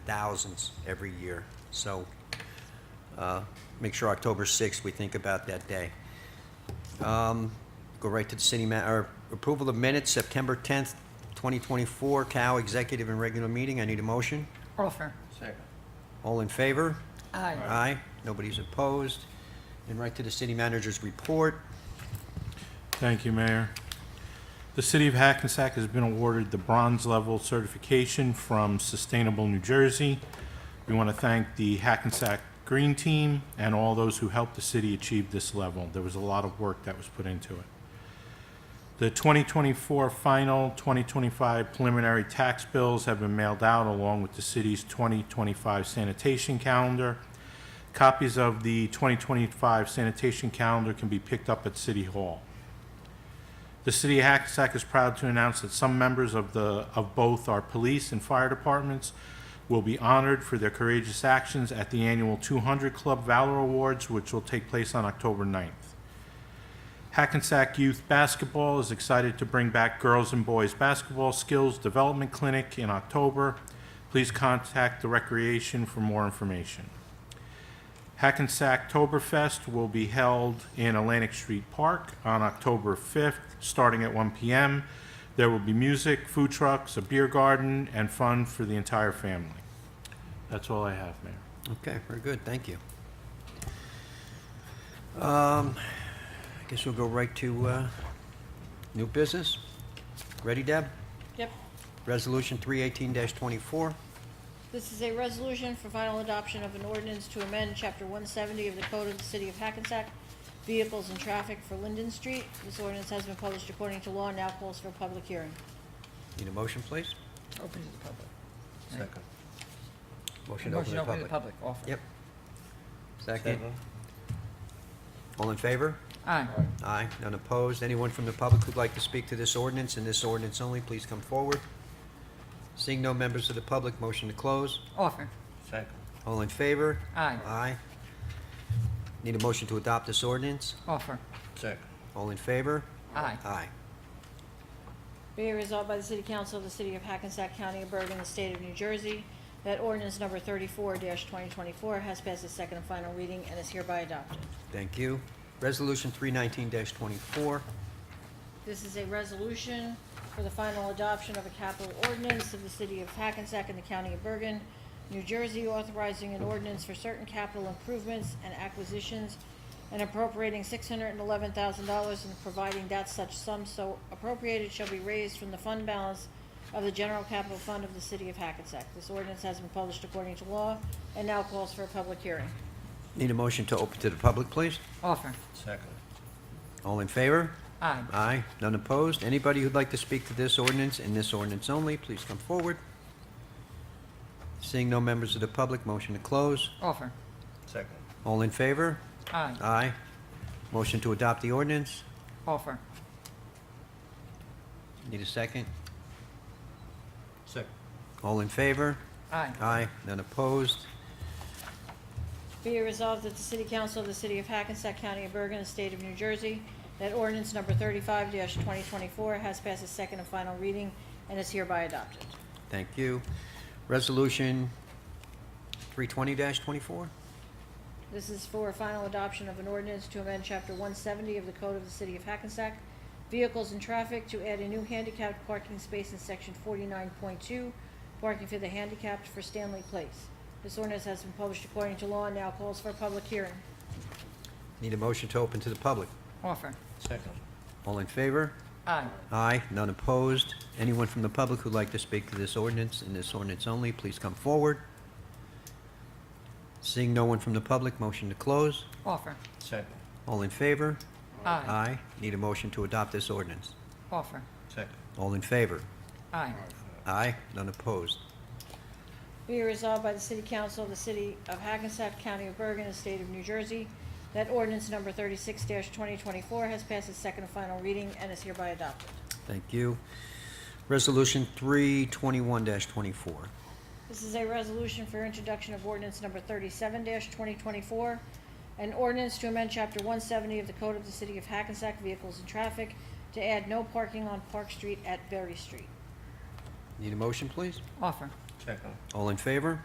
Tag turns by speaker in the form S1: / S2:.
S1: thousands every year. So uh, make sure October 6th, we think about that day. Um, Go right to the city ma, or approval of minutes, September 10th, 2024, Cow Executive and Regular Meeting. I need a motion.
S2: Offer.
S3: Second.
S1: All in favor?
S2: Aye.
S1: Aye. Nobody's opposed. And right to the city manager's report.
S4: Thank you, Mayor. The City of Hackensack has been awarded the Bronze Level Certification from Sustainable New Jersey. We want to thank the Hackensack Green Team and all those who helped the city achieve this level. There was a lot of work that was put into it. The 2024 final 2025 preliminary tax bills have been mailed out along with the city's 2025 sanitation calendar. Copies of the 2025 sanitation calendar can be picked up at City Hall. The city of Hackensack is proud to announce that some members of the, of both our police and fire departments will be honored for their courageous actions at the annual 200 Club Valor Awards, which will take place on October 9th. Hackensack Youth Basketball is excited to bring back Girls and Boys Basketball Skills Development Clinic in October. Please contact the Recreation for more information. Hackensack Toberfest will be held in Atlantic Street Park on October 5th, starting at 1 p.m. There will be music, food trucks, a beer garden, and fun for the entire family. That's all I have, Mayor.
S1: Okay, very good, thank you. Um, I guess we'll go right to uh, new business. Ready, Deb?
S5: Yep.
S1: Resolution 318-24.
S5: This is a resolution for final adoption of an ordinance to amend Chapter 170 of the Code of the City of Hackensack, Vehicles and Traffic for Linden Street. This ordinance has been published according to law and now calls for a public hearing.
S1: Need a motion, please?
S2: Open to the public.
S3: Second.
S1: Motion to open
S2: Motion
S1: to
S2: open to
S1: public.
S2: the public, offer.
S1: Yep. Second. All in favor?
S2: Aye.
S1: Aye. None opposed? Anyone from the public who'd like to speak to this ordinance and this ordinance only, please come forward. Seeing no members of the public, motion to close.
S2: Offer.
S3: Second.
S1: All in favor?
S2: Aye.
S1: Aye. Need a motion to adopt this ordinance?
S2: Offer.
S3: Second.
S1: All in favor?
S2: Aye.
S1: Aye.
S5: Be it resolved by the City Council of the City of Hackensack County of Bergen, the State of New Jersey, that ordinance number 34-2024 has passed its second and final reading and is hereby adopted.
S1: Thank you. Resolution 319-24.
S5: This is a resolution for the final adoption of a capital ordinance of the city of Hackensack and the county of Bergen, New Jersey, authorizing an ordinance for certain capital improvements and acquisitions and appropriating six hundred and eleven thousand dollars and providing that such sum so appropriated shall be raised from the fund balance of the general capital fund of the city of Hackensack. This ordinance has been published according to law and now calls for a public hearing.
S1: Need a motion to open to the public, please?
S2: Offer.
S3: Second.
S1: All in favor?
S2: Aye.
S1: Aye. None opposed? Anybody who'd like to speak to this ordinance and this ordinance only, please come forward. Seeing no members of the public, motion to close.
S2: Offer.
S3: Second.
S1: All in favor?
S2: Aye.
S1: Aye. Motion to adopt the ordinance?
S2: Offer.
S1: Need a second?
S3: Second.
S1: All in favor?
S2: Aye.
S1: Aye. None opposed?
S5: Be it resolved that the City Council of the City of Hackensack County of Bergen, the State of New Jersey, that ordinance number thirty-five twenty twenty-four has passed its second and final reading and is hereby adopted.
S1: Thank you. Resolution 320-24?
S5: This is for final adoption of an ordinance to amend Chapter one seventy of the Code of the City of Hackensack, Vehicles and Traffic, to add a new handicapped parking space in Section forty-nine point two, parking for the handicapped for Stanley Place. This ordinance has been published according to law and now calls for a public hearing.
S1: Need a motion to open to the public.
S2: Offer.
S3: Second.
S1: All in favor?
S2: Aye.
S1: Aye, none opposed. Anyone from the public who'd like to speak to this ordinance and this ordinance only, please come forward. Seeing no one from the public, motion to close.
S2: Offer.
S3: Second.
S1: All in favor?
S2: Aye.
S1: Aye. Need a motion to adopt this ordinance.
S2: Offer.
S3: Second.
S1: All in favor?
S2: Aye.
S1: Aye, none opposed.
S5: Be it resolved by the City Council of the City of Hackensack, County of Bergen, and State of New Jersey, that ordinance number thirty-six twenty twenty-four has passed its second and final reading and is hereby adopted.
S1: Thank you. Resolution 321-24.
S5: This is a resolution for introduction of ordinance number thirty-seven twenty twenty-four, an ordinance to amend chapter one seventy of the Code of the City of Hackensack Vehicles and Traffic to add no parking on Park Street at Berry Street.
S1: Need a motion, please?
S2: Offer.
S3: Second.
S1: All in favor?